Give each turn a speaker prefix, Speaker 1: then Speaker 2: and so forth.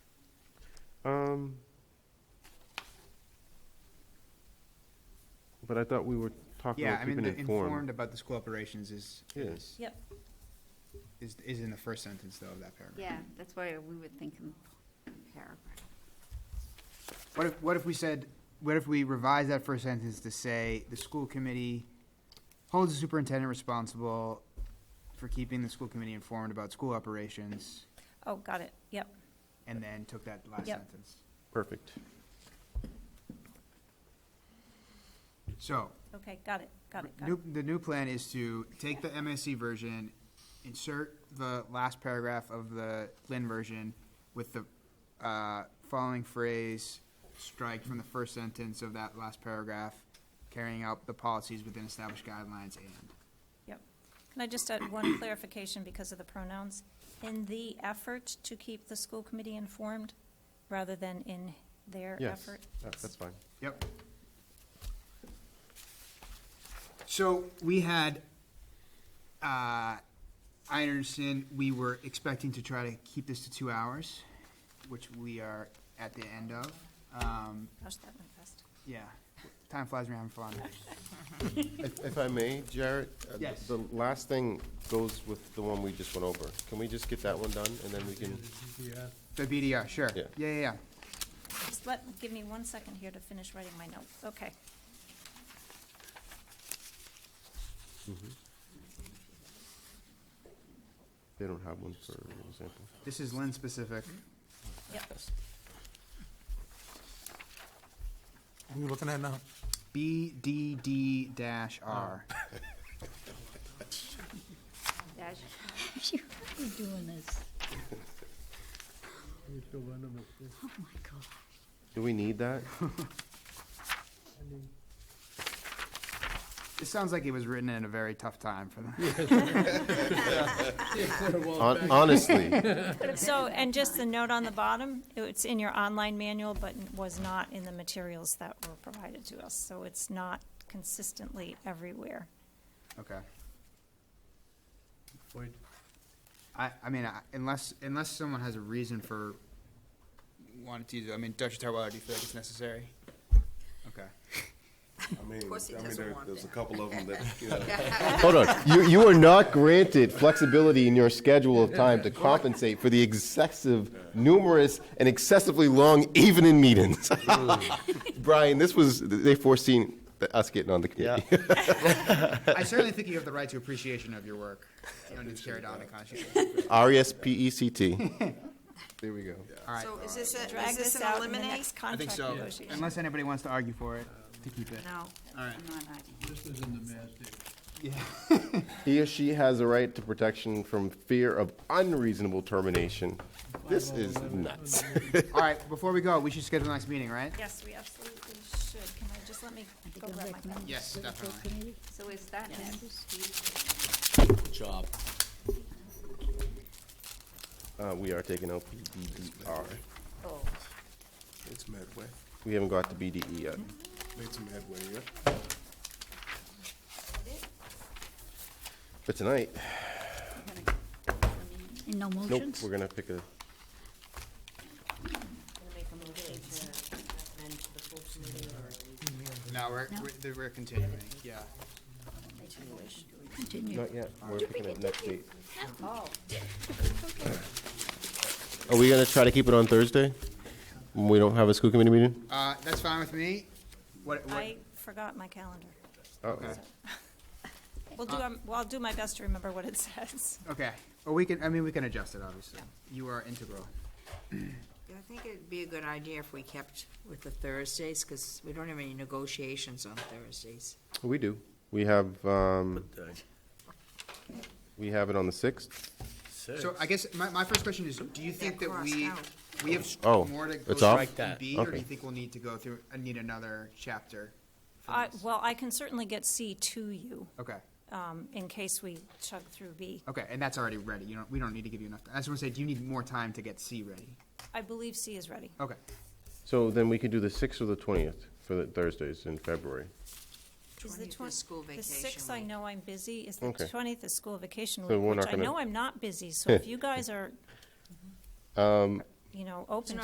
Speaker 1: Um, but I thought we were talking
Speaker 2: Yeah,
Speaker 1: about
Speaker 2: I mean,
Speaker 1: keeping
Speaker 2: the informed
Speaker 1: informed.
Speaker 2: about the school operations is,
Speaker 1: Yeah.
Speaker 2: is,
Speaker 3: Yep.
Speaker 2: is is in the first sentence though of that paragraph.
Speaker 4: Yeah, that's why we would think in paragraph.
Speaker 2: What if, what if we said, what if we revised that first sentence to say, the school committee holds the superintendent responsible for keeping the school committee informed about school operations,
Speaker 3: Oh, got it. Yep.
Speaker 2: and then took that last
Speaker 3: Yep.
Speaker 2: sentence?
Speaker 1: Perfect.
Speaker 2: So,
Speaker 3: Okay, got it, got it, got it.
Speaker 2: new, the new plan is to take the MSC version, insert the last paragraph of the Lynn version with the, uh, following phrase, strike from the first sentence of that last paragraph, carrying out the policies within established guidelines and.
Speaker 3: Can I just add one clarification because of the pronouns? In the effort to keep the school committee informed, rather than in their
Speaker 1: Yes,
Speaker 3: effort?
Speaker 1: that- that's fine.
Speaker 2: Yep. So we had, uh, I understand we were expecting to try to keep this to two hours, which we are at the end of. Um,
Speaker 3: Gosh, that went fast.
Speaker 2: yeah, time flies when you're having fun.
Speaker 1: If if I may, Jarrett? uh, th-
Speaker 2: Yes.
Speaker 1: The last thing goes with the one we just went over. Can we just get that one done, and then we can?
Speaker 2: The BDR, sure.
Speaker 1: Yeah.
Speaker 2: Yeah, yeah, yeah.
Speaker 3: Just let, give me one second here to finish writing my note. Okay.
Speaker 1: They don't have one, for example.
Speaker 2: This is Lynn specific.
Speaker 3: Yep.
Speaker 5: What are you looking at now?
Speaker 2: BDD dash R.
Speaker 4: Dash,
Speaker 6: We're doing this. Oh, my God.
Speaker 1: Do we need that?
Speaker 2: It sounds like it was written in a very tough time for them.
Speaker 1: Hon- Honestly,
Speaker 3: So, and just the note on the bottom, it's in your online manual, but was not in the materials that were provided to us. So it's not consistently everywhere.
Speaker 2: Okay. I, I mean, I- unless, unless someone has a reason for wanting to, use it, I mean, Dr. Tarwell, do you feel like it's necessary? Okay.
Speaker 7: I mean,
Speaker 6: course he
Speaker 7: I mean,
Speaker 6: doesn't
Speaker 7: there,
Speaker 6: want
Speaker 7: there's a
Speaker 6: that.
Speaker 7: couple of them that, you know,
Speaker 1: hold on. You, you are not granted flexibility in your schedule of time to compensate for the excessive, numerous, and excessively long evening meetings. Brian, this was, they foreseen us getting on the committee.
Speaker 2: I certainly think you have the right to appreciation of your work. You don't need to carry it on a conscious. basis.
Speaker 1: R E S P E C T. There we go.
Speaker 2: All right.
Speaker 6: So is this, a-
Speaker 3: Drag
Speaker 6: is this
Speaker 3: this
Speaker 6: an
Speaker 3: out in the
Speaker 6: eliminate?
Speaker 3: next contract
Speaker 2: so.
Speaker 3: negotiation.
Speaker 2: Unless anybody wants to argue for it, to keep it.
Speaker 4: no,
Speaker 2: All right.
Speaker 4: I'm not arguing.
Speaker 1: He or she has a right to protection from fear of unreasonable termination. This is nuts.
Speaker 2: All right, before we go, we should schedule the next meeting, right?
Speaker 3: Yes, we absolutely should. Can I just let me
Speaker 6: I think
Speaker 3: go
Speaker 6: I'm
Speaker 3: grab my pen?
Speaker 6: recommending
Speaker 2: Yes,
Speaker 6: to the full
Speaker 2: definitely.
Speaker 6: committee.
Speaker 4: So is that next week?
Speaker 8: job.
Speaker 1: Uh, we are taking out PDDR.
Speaker 4: Oh,
Speaker 7: it's Medway,
Speaker 1: We haven't got to BDE E yet.
Speaker 7: it's Medway, yeah.
Speaker 1: But tonight,
Speaker 4: I'm gonna- I mean,
Speaker 6: And no
Speaker 1: nope,
Speaker 6: motions?
Speaker 1: we're gonna pick a,
Speaker 9: Gonna make a motion to recommend to the full committee or
Speaker 2: No, we're,
Speaker 6: No.
Speaker 2: we're- we're continuing, yeah.
Speaker 9: continuation.
Speaker 6: Continue.
Speaker 1: not yet, we're picking up next date.
Speaker 9: Oh,
Speaker 1: Are we gonna try to keep it on Thursday? When We don't have a school committee meeting?
Speaker 2: Uh, that's fine with me. What, what,
Speaker 3: I forgot my calendar.
Speaker 1: Uh-oh.
Speaker 3: We'll do, um, well, I'll do my best to remember what it says.
Speaker 2: okay. Or we can, I mean, we can adjust it, obviously. You are integral.
Speaker 9: Yeah, I think it'd be a good idea if we kept with the Thursdays, because we don't have any negotiations on Thursdays.
Speaker 1: We do. We have, um, we have it on the sixth.
Speaker 2: So I guess my, my first question is, do you think that
Speaker 9: crossed
Speaker 2: we,
Speaker 9: out.
Speaker 2: we have
Speaker 1: Oh,
Speaker 2: more to go
Speaker 1: it's off?
Speaker 2: through in B, or do you
Speaker 1: Okay.
Speaker 2: think we'll need to go through, uh, need another chapter? for
Speaker 3: I,
Speaker 2: this?
Speaker 3: well, I can certainly get C to you,
Speaker 2: Okay,
Speaker 3: um, in case we chug through B.
Speaker 2: okay, and that's already ready, you don't, we don't need to give you enough, I just wanna say, do you need more time to get C ready?
Speaker 3: I believe C is ready.
Speaker 2: Okay,
Speaker 1: So then we could do the sixth or the twentieth for the Thursdays in February.
Speaker 3: Is
Speaker 9: 20th is
Speaker 3: twen-
Speaker 9: school
Speaker 3: The
Speaker 9: vacation
Speaker 3: sixth, I
Speaker 9: week.
Speaker 3: know I'm busy, is the
Speaker 1: Okay.
Speaker 3: twentieth is school vacation
Speaker 1: So
Speaker 3: week,
Speaker 1: we're
Speaker 3: which
Speaker 1: not
Speaker 3: I
Speaker 1: gonna- Um,
Speaker 3: know I'm not busy, so if you guys are, you know, open